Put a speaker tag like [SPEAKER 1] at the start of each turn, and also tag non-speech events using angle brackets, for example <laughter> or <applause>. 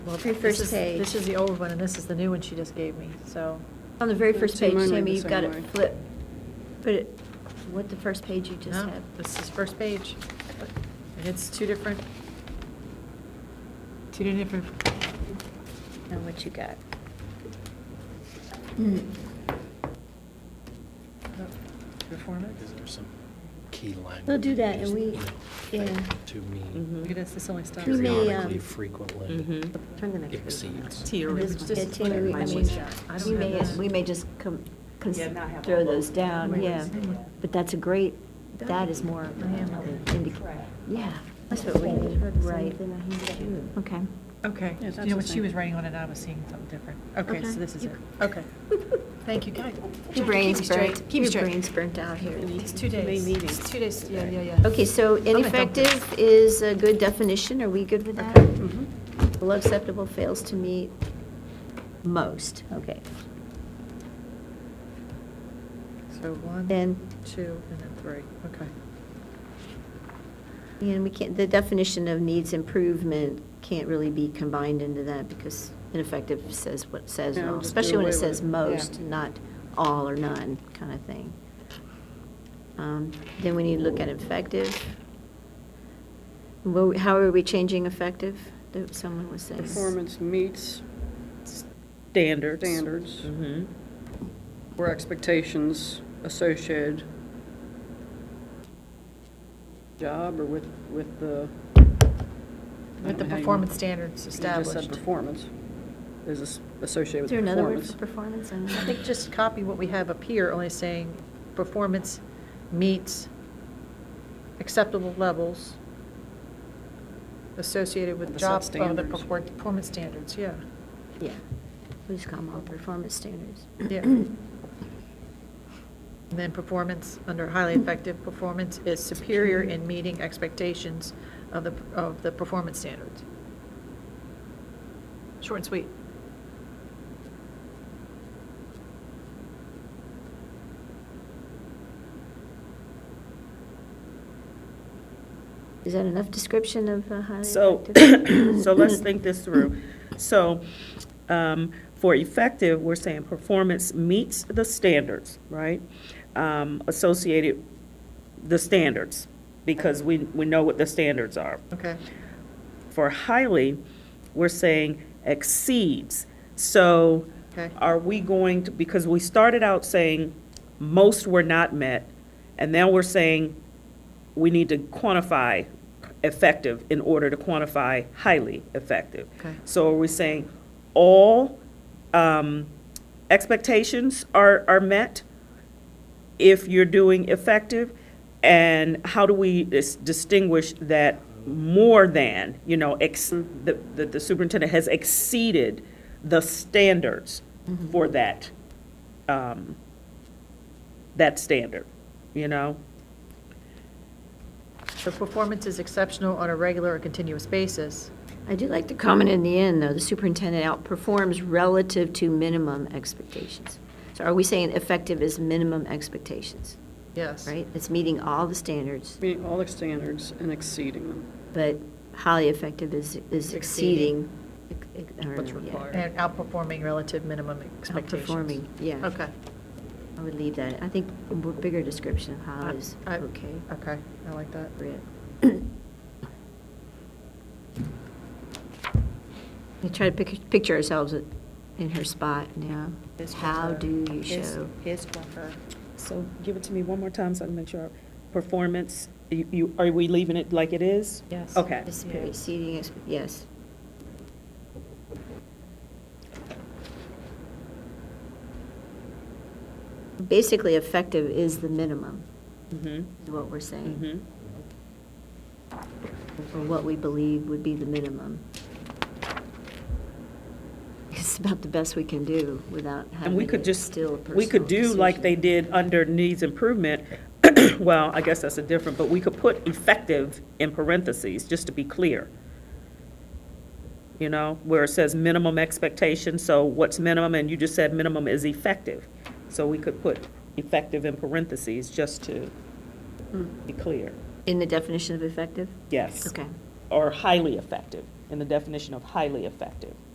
[SPEAKER 1] Well,
[SPEAKER 2] Very
[SPEAKER 1] this
[SPEAKER 2] first
[SPEAKER 1] is-
[SPEAKER 2] page.
[SPEAKER 1] This is the old one, and this is the new one she just gave me, so.
[SPEAKER 2] On the very
[SPEAKER 3] Those
[SPEAKER 2] first
[SPEAKER 3] two
[SPEAKER 2] page,
[SPEAKER 3] mine were
[SPEAKER 2] Tammy,
[SPEAKER 3] the
[SPEAKER 2] you've got
[SPEAKER 3] same
[SPEAKER 2] it
[SPEAKER 3] way.
[SPEAKER 2] flip, put it, what, the first page you just
[SPEAKER 1] no,
[SPEAKER 2] had?
[SPEAKER 1] This is first page. And it's two different, two different,
[SPEAKER 2] Now what you got?
[SPEAKER 1] performance.
[SPEAKER 4] Is there some key language?
[SPEAKER 2] They'll do that,
[SPEAKER 4] just,
[SPEAKER 2] and we-
[SPEAKER 4] you know,
[SPEAKER 2] yeah.
[SPEAKER 4] that To me,
[SPEAKER 5] Mm-hmm.
[SPEAKER 3] Mhm.
[SPEAKER 1] Look at this, this only stops.
[SPEAKER 2] We may, uh,
[SPEAKER 4] periodically, frequently.
[SPEAKER 3] Turn the
[SPEAKER 4] next page around.
[SPEAKER 3] To your
[SPEAKER 2] It is
[SPEAKER 3] original.
[SPEAKER 2] just-
[SPEAKER 1] Just
[SPEAKER 2] yeah, Tammy, we- I
[SPEAKER 1] mine
[SPEAKER 2] mean,
[SPEAKER 1] was that. I don't
[SPEAKER 2] we
[SPEAKER 1] have
[SPEAKER 2] may,
[SPEAKER 1] that.
[SPEAKER 2] we may just com- cons-
[SPEAKER 5] Yeah, not have
[SPEAKER 2] throw
[SPEAKER 5] all
[SPEAKER 2] those
[SPEAKER 5] those.
[SPEAKER 2] down,
[SPEAKER 1] Right.
[SPEAKER 2] yeah. But that's a great, that is more
[SPEAKER 1] I am.
[SPEAKER 2] indicative, yeah, that's what we need, right. Okay.
[SPEAKER 1] Okay,
[SPEAKER 3] Yeah,
[SPEAKER 1] you
[SPEAKER 3] that's
[SPEAKER 1] know
[SPEAKER 3] the
[SPEAKER 1] what she
[SPEAKER 3] same.
[SPEAKER 1] was writing on it, I was seeing something different. Okay,
[SPEAKER 2] Okay.
[SPEAKER 1] so this is
[SPEAKER 2] You-
[SPEAKER 1] it. Okay. Thank you, guys.
[SPEAKER 2] Your brain's burnt,
[SPEAKER 1] Keep me
[SPEAKER 2] your
[SPEAKER 1] straight.
[SPEAKER 2] brain's burnt out here.
[SPEAKER 1] It's two
[SPEAKER 3] Main
[SPEAKER 1] days.
[SPEAKER 3] meeting.
[SPEAKER 1] It's two days, yeah, yeah, yeah.
[SPEAKER 2] Okay, so
[SPEAKER 1] gonna dump
[SPEAKER 2] ineffective is a good definition, are we good with that?
[SPEAKER 1] Okay.
[SPEAKER 2] Below acceptable fails to meet most, okay.
[SPEAKER 1] So one,
[SPEAKER 2] Then-
[SPEAKER 1] two, and then three, okay.
[SPEAKER 2] And we can't, the definition of needs improvement can't really be combined into that because ineffective says what says,
[SPEAKER 3] Yeah,
[SPEAKER 2] all,
[SPEAKER 3] just do
[SPEAKER 2] especially when
[SPEAKER 3] away
[SPEAKER 2] it
[SPEAKER 3] with
[SPEAKER 2] says
[SPEAKER 3] it. Yeah.
[SPEAKER 2] most, not all or none kind of thing. Um, Then we need to look at effective. Wo- How are we changing effective? That Someone was saying.
[SPEAKER 3] Performance meets
[SPEAKER 5] Standards.
[SPEAKER 3] standards
[SPEAKER 5] Mm-hmm.
[SPEAKER 3] or expectations associated job or with, with the. I
[SPEAKER 1] With
[SPEAKER 3] don't
[SPEAKER 1] the
[SPEAKER 3] know how you-
[SPEAKER 1] performance standards
[SPEAKER 3] You just
[SPEAKER 1] established.
[SPEAKER 3] said performance is as- associated
[SPEAKER 2] Is there
[SPEAKER 3] with
[SPEAKER 2] another word
[SPEAKER 3] performance.
[SPEAKER 2] for performance? I'm-
[SPEAKER 1] I think just copy what we have up here, only saying performance meets acceptable levels associated with
[SPEAKER 3] With the
[SPEAKER 1] job,
[SPEAKER 3] set
[SPEAKER 1] oh, the
[SPEAKER 3] standards.
[SPEAKER 1] perfor- performance standards, yeah.
[SPEAKER 2] Yeah. We just call them all performance standards.
[SPEAKER 1] Yeah. And then performance, under highly
[SPEAKER 2] Hmm.
[SPEAKER 1] effective, performance is superior in meeting expectations of the, of the performance standards. Short and sweet.
[SPEAKER 2] Is that enough description of uh, highly
[SPEAKER 5] So,
[SPEAKER 2] effective?
[SPEAKER 5] so let's think this through. So, um, for effective, we're saying performance meets the standards, right? Um, associated, the standards, because we, we know what the standards are.
[SPEAKER 1] Okay.
[SPEAKER 5] For highly, we're saying exceeds. So
[SPEAKER 1] Okay.
[SPEAKER 5] are we going to, because we started out saying most were not met, and now we're saying we need to quantify effective in order to quantify highly effective.
[SPEAKER 1] Okay.
[SPEAKER 5] So are we saying all um, expectations are, are met if you're doing effective? And how do we dis- distinguish that more than, you know, ex, the, the the superintendent has exceeded the standards <coughs> for that, um, that standard, you know?
[SPEAKER 1] So performance is exceptional on a regular or continuous basis.
[SPEAKER 2] I do like the comment in the end, though, the superintendent outperforms relative to minimum expectations. So are we saying effective is minimum expectations,
[SPEAKER 1] Yes.
[SPEAKER 2] right? It's meeting all the standards,
[SPEAKER 3] Meeting all the standards and exceeding them.
[SPEAKER 2] but highly effective is, is
[SPEAKER 1] Exceeding.
[SPEAKER 2] exceeding. ex- ex- I don't
[SPEAKER 3] What's
[SPEAKER 2] know, yeah.
[SPEAKER 3] required.
[SPEAKER 1] And outperforming relative minimum expectations.
[SPEAKER 2] Outperforming, yeah.
[SPEAKER 1] Okay.
[SPEAKER 2] I would leave that. I think a more bigger description of how is
[SPEAKER 1] I- I-
[SPEAKER 2] okay.
[SPEAKER 1] Okay, I like that.
[SPEAKER 2] appropriate. We try to pic- picture ourselves at- in her spot now. How do you show?
[SPEAKER 5] His or her. So give it to me one more time so I can make sure. Performance, you- you, are we leaving it like it is?
[SPEAKER 1] Yes.
[SPEAKER 5] Okay.
[SPEAKER 2] This period, exceeding ex- yes. Basically, effective is the minimum,
[SPEAKER 5] Mm-hmm,
[SPEAKER 2] is what we're saying,
[SPEAKER 5] mm-hmm.
[SPEAKER 2] or what we believe would be the minimum. It's about the best we can do without
[SPEAKER 5] And we
[SPEAKER 2] having
[SPEAKER 5] could
[SPEAKER 2] it
[SPEAKER 5] just,
[SPEAKER 2] still a personal
[SPEAKER 5] we could do like they
[SPEAKER 2] decision.
[SPEAKER 5] did under needs improvement. <coughs> Well, I guess that's a different, but we could put effective in parentheses, just to be clear. You know, where it says minimum expectation, so what's minimum, and you just said minimum is effective. So we could put effective in parentheses, just to be clear.
[SPEAKER 2] In the definition of effective?
[SPEAKER 5] Yes.
[SPEAKER 2] Hmm. Okay.
[SPEAKER 5] Or highly effective. in the definition of highly effective.